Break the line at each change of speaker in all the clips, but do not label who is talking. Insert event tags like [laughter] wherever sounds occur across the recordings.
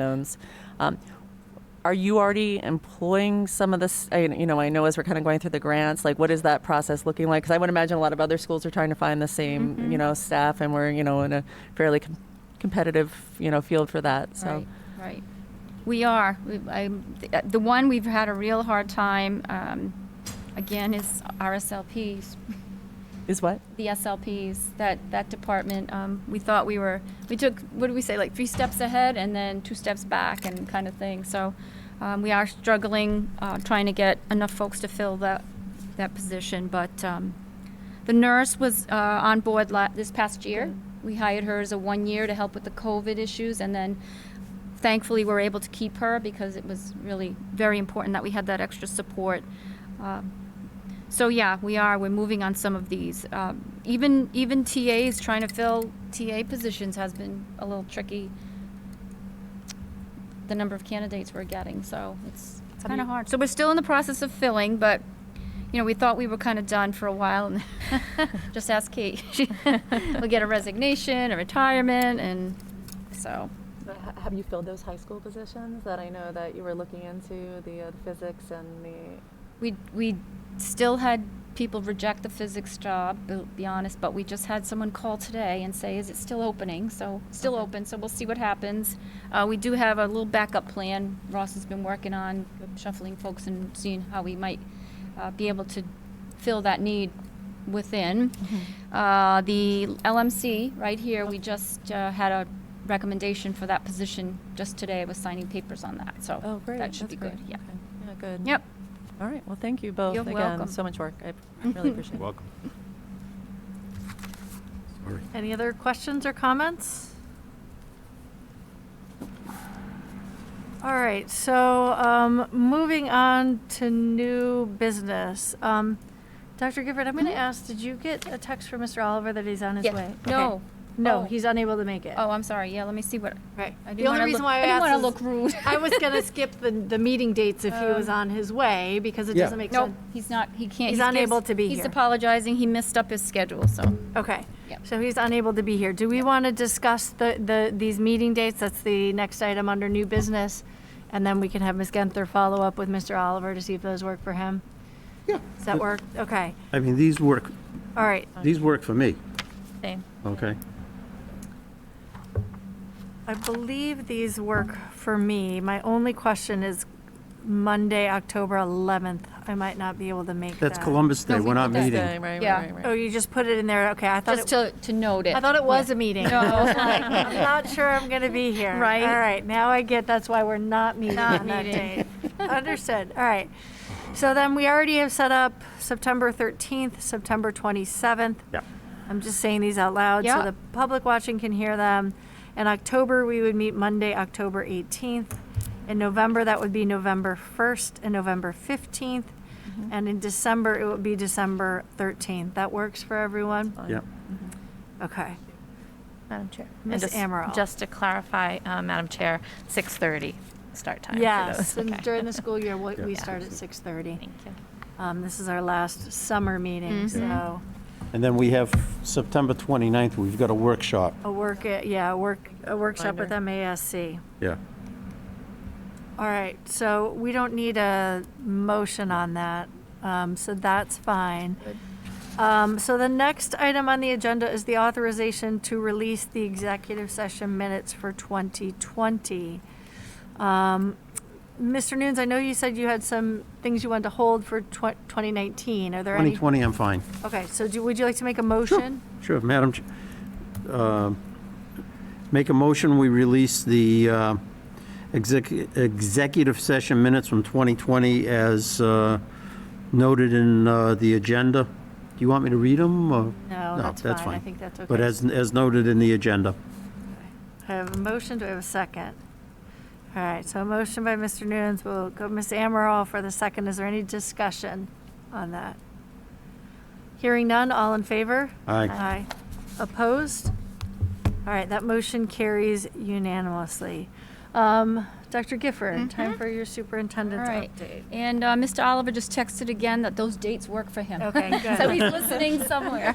zones. Um, Are you already employing some of this, I- you know, I know as we're kind of going through the grants, like what is that process looking like? Because I would imagine a lot of other schools are trying to find the same, you know, staff and we're, you know, in a fairly com- competitive, you know, field for that, so.
Right, right. We are. We, I, the, the one we've had a real hard time, um, again, is RSLPs,
Is what?
the SLPs, that, that department. Um, we thought we were, we took, what did we say, like three steps ahead and then two steps back and kind of thing. So um, we are struggling, uh, trying to get enough folks to fill that, that position. But um, the nurse was uh, on board la- this past year. We hired her as a one year to help with the COVID issues and then thankfully we're able to keep her because it was really very important that we had that extra support. Um, so yeah, we are. We're moving on some of these. Um, even even TAs trying to fill TA positions has been a little tricky. The number of candidates we're getting, so it's it's kind of hard. So we're still in the process of filling, but you know we thought we were kind of done for a while, and [laughs] just ask Kate. [laughs] we'll get a resignation, a retirement, and so
But Uh, ha- have you filled those high school positions that I know that you were looking into the uh, physics and the
We, we still had people reject the physics job, to be honest, but we just had someone call today and say, is it still opening? So, still
Okay.
open, so we'll see what happens. Uh, we do have a little backup plan Ross has been working on, shuffling folks and seeing how we might uh, be able to fill that need within. Uh, the LMC, right here, we just uh, had a recommendation for that position just today, I was signing papers on that, so.
Oh, great.
That should
That's
be good,
great.
yeah.
Okay. yeah good
Yep.
All right, well, thank you both
You're
again,
welcome.
so much work, I
[laughs]
really appreciate it.
Welcome. Sorry.
Uh,
Any other questions or comments? All right, so um, moving on to new business. Um, Dr. Gifford, I'm going to
Mhm.
ask, did you get a text from Mr. Oliver that he's on his
Yeah.
way?
No.
Okay. No,
Oh.
he's unable to make it.
Oh, I'm sorry. Yeah, let me see what.
Right.
I
The
didn't
only
wanna
reason
look-
why I
I didn't
asked
wanna
is
look rude.
I was
[laughs]
going to skip the, the meeting dates if he was
Um,
on his way because it
Yeah.
doesn't make
Nope,
sense.
he's not, he can't.
He's
gives-
unable to be
He's
here.
apologizing. He missed up his schedule, so.
Okay,
Yep.
so he's unable to be here. Do we want to discuss the, the, these meeting dates? That's the next item under new business. And then we can have Ms. Genther follow up with Mr. Oliver to see if those work for him.
Yeah.
Does that work? Okay,
I mean, these work,
all right.
these work for me,
Same.
okay?
I believe these work for me. My only question is Monday, October 11th. I might not be able to make that.
That's Columbus Day,
No, we
we're not
did that.
Okay,
meeting.
right,
Yeah.
right, right,
Oh,
right.
you just put it in there? Okay, I thought
Just
it,
to, to note it.
I thought it was a meeting.
No.
[laughs] I'm not sure I'm going to be here.
[laughs] Right.
All right, now I get, that's why we're not meeting
Not
on that
meeting.
date. Understood, all right. So then we already have set up September 13th, September 27th.
Yeah.
I'm just saying these out loud
Yeah.
so the public watching can hear them. In October, we would meet Monday, October 18th. In November, that would be November 1st and November 15th.
Mm-hmm.
And in December, it would be December 13th. That works for everyone?
Fine.
Yeah,
Okay.
Madam Chair. And
Ms.
just-
Amaral.
Just to clarify, uh, Madam Chair, 6:30 start time for
Yes,
those.
and
Okay.
during
[laughs]
the school year, we
Yeah.
we
Yeah.
start at 6:30.
Thank you.
Um, This is our last summer meeting,
Mhm.
so
and then we have September 29th, we've got a workshop.
Oh.
a work, uh, yeah, a work, a workshop with
Reminder.
MASC.
Yeah.
All right, so we don't need a motion on that, um, so that's fine. Um, So the next item on the agenda is the authorization to release the executive session minutes for 2020. Um, Mr. Nunes, I know you said you had some things you wanted to hold for twen- 2019. Are there any?
2020, I'm fine.
Okay, so do, would you like to make a motion?
Sure, Madam, Ch- uh, make a motion, we release the uh, exec- executive session minutes from 2020 as uh, noted in uh, the agenda. Do you want me to read them? No,
No, that's fine. I think that's
But
okay.
as, as noted in the agenda.
I have a motion, do I have a second? All right, so a motion by Mr. Nunes, we'll go Ms. Amaral for the second. Is there any discussion on that? Hearing none, all in favor?
Aye.
Aye. Opposed? All right, that motion carries unanimously. Um, Dr. Gifford, time for your superintendend's
Mm-hmm. All right.
update.
And uh, Mr. [laughs] Oliver just texted again that those dates work for him.
Okay,
So [laughs]
good.
he's listening somewhere.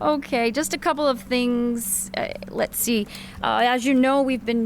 Okay, just a couple of things. Uh, let's see. Uh, as you know, we've been